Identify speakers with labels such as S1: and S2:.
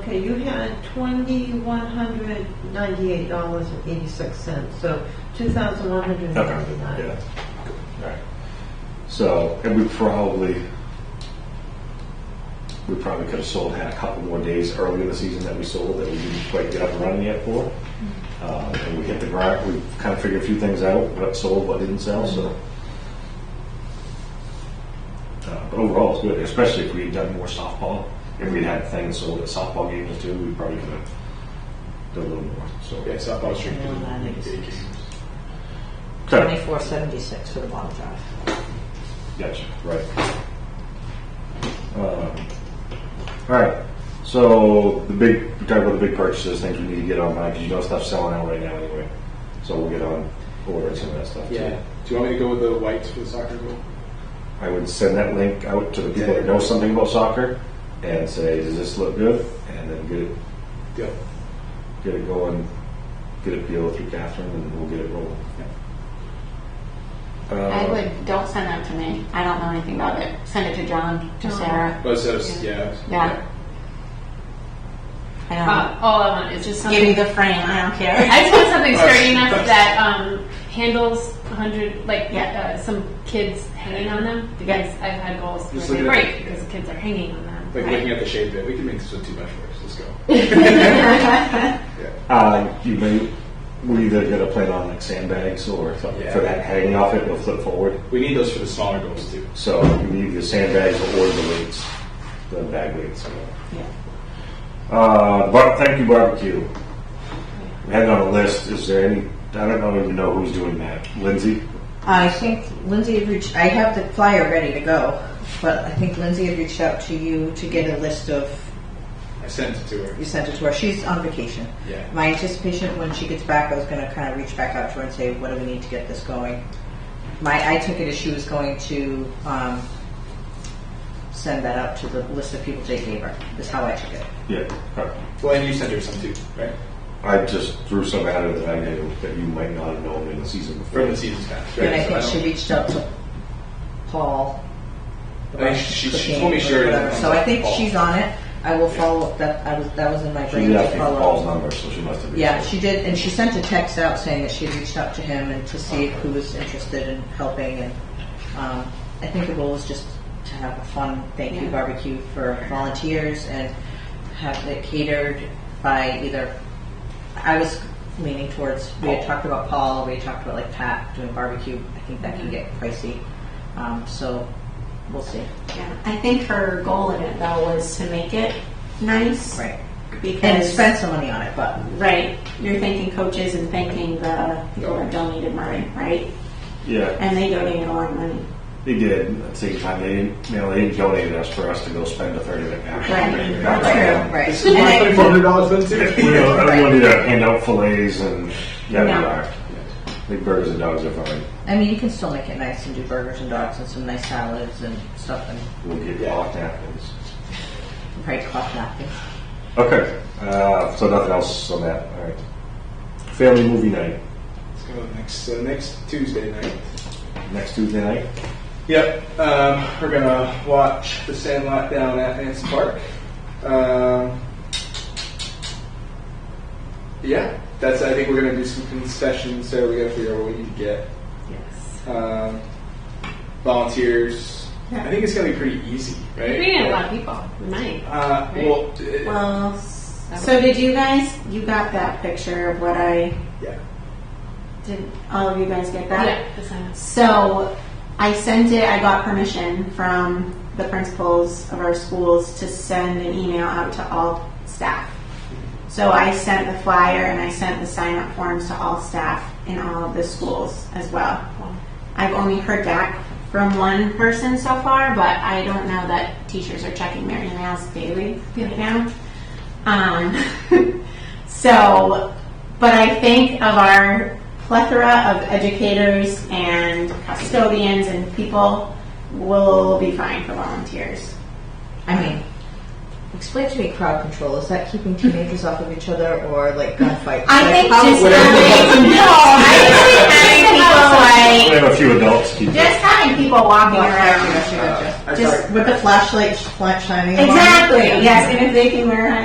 S1: Okay, you had twenty-one hundred ninety-eight dollars and eighty-six cents, so two thousand one hundred
S2: Okay,
S1: ninety-nine.
S2: yeah, all right. So, and we probably, we probably could have sold, had a couple more days early in the season that we sold that we didn't quite get up and running yet for. Uh, And we hit the grind, we kind of figured a few things out, what sold, what didn't sell, so. Uh, But overall, it's good, especially if we had done more softball. If we'd had things sold at softball games too, we probably could have done a little more, so.
S3: Yeah, softball stream.
S2: Okay.
S4: Twenty-four seventy-six for the bottom drive.
S2: Gotcha, right. Um, All right, so the big, we talked about the big purchases, things we need to get on, Mike, 'cause you know stuff's selling out right now anyway. So we'll get on ordering some of that stuff too.
S3: Yeah. Do you want me to go with the whites for the soccer goal?
S2: I would send that link out to the people that know something about soccer and say, does this look good? And then get it,
S3: Deal.
S2: get it going, get it peeled through Catherine and we'll get it rolling.
S5: I would, don't send that to me. I don't know anything about it. Send it to John, to Sarah.
S3: But so, it's- yeah.
S5: Yeah.
S4: I don't
S6: Uh, all I want is just
S4: know. Give me
S6: something.
S4: the frame, I don't care.
S6: I just want
S3: Oh,
S6: something sturdy enough that um, handles 100, like
S5: Yeah.
S6: uh, some kids hanging on them. Because I've had goals
S3: Just
S6: where they
S3: looking at-
S6: break because kids are hanging on them.
S3: Like
S6: right?
S3: looking at the shape of it, we can make this one too much for us. Let's go.
S2: Uh, you may, we either gotta plan on like sandbags or something for that hanging off it, it'll flip forward.
S3: We need those for the smaller goals too.
S2: So you need the sandbags or the weights, the bag weights. Uh, bar- thank you barbecue. We had it on a list. Is there any, I don't know, even know who's doing that. Lindsay?
S4: I think Lindsay had reached, I have the flyer ready to go, but I think Lindsay had reached out to you to get a list of,
S3: I sent it to her.
S4: you sent it to her, she's on vacation.
S3: Yeah.
S4: My anticipation, when she gets back, I was gonna kind of reach back out to her and say, what do we need to get this going? My, I took it as she was going to, um, send that out to the list of people Jay gave her, is how I took it.
S2: Yeah. okay.
S3: Well, and you sent her some too, right?
S2: I just threw some at her that I knew that you might not have known in the season
S3: From
S2: before.
S3: the season's past, right?
S4: And
S3: So
S4: I think she
S3: don't-
S4: reached out to Paul.
S3: I think she, she
S4: Cooking
S3: told me
S4: or
S3: sure.
S4: whatever. So I think
S3: Paul.
S4: she's on it. I will follow up. That I was that was in my
S2: She
S4: brain
S2: did
S4: to
S2: ask me for Paul's
S4: follow. up.
S2: number, so she must have. been-
S4: Yeah, she did, and she sent a text out saying that she had reached out to him and to see who was interested in helping. And um, I think the goal is just to have a fun thank you
S5: Yeah.
S4: barbecue for volunteers and have it catered by either. I was leaning towards we had talked about Paul. We had talked about like Pat doing barbecue. I think that can get pricey, um, so we'll see.
S5: Yeah. I think her goal in it though was to make it nice.
S4: Right. and
S5: Because,
S4: spend some money on it, but
S5: right, you're thanking coaches and thanking the people that donated money, right?
S2: Yeah,
S5: And they donated a lot of money.
S2: they did. At the same time, they, didn't- you know, they donated us for us to go spend a third of it now.
S5: Right.
S2: Not now.
S4: right.
S3: This is my twenty-four hundred dollars then
S2: You
S3: too.
S2: know, I wanted to hand out fillets and, yeah,
S5: No.
S2: we are. Big burgers and dogs are fine.
S4: I mean, you can still make it nice and do burgers and dogs and some nice salads and stuff and
S2: We'll get
S3: Yeah.
S2: cloth napkins.
S4: probably cloth napkins.
S2: Okay, uh, so nothing else on that, all right. Family movie night,
S3: Let's go next uh, next Tuesday night.
S2: next Tuesday night?
S3: Yep, um, we're gonna watch The Sandlot down at Anson Park. Um, yeah, that's. I think we're gonna do some concessions, so we gotta figure out what we need to get.
S6: Yes.
S3: Um, volunteers. I think it's gonna be pretty easy, right?
S6: We need a lot of people. We might.
S3: Uh, well, d-
S5: Well, so did you guys, you got that picture of what I,
S3: yeah.
S5: did all of you guys get that?
S6: Yeah, the sign-ups.
S5: So I sent it, I got permission from the principals of our schools to send an email out to all staff. So I sent the flyer and I sent the sign up forms to all staff in all of the schools as well. I've only heard back from one person so far, but I don't know that teachers are checking their emails daily right now. Um, so, but I think of our plethora of educators and custodians and people will be fine for volunteers.
S4: I mean, explain to me crowd control. Is that keeping teenagers off of each other or like gunfights?
S5: I
S4: Like,
S5: think
S4: how-
S5: just
S4: what-
S5: having, no, I think having people
S2: We
S5: like,
S2: have a few adults keep
S5: just having people walking around.
S4: Yes, you gotcha.
S3: Uh, I
S5: Just-
S3: thought-
S4: With the flashlight sh- flash shining. on.
S5: Exactly, yes, and if they can wear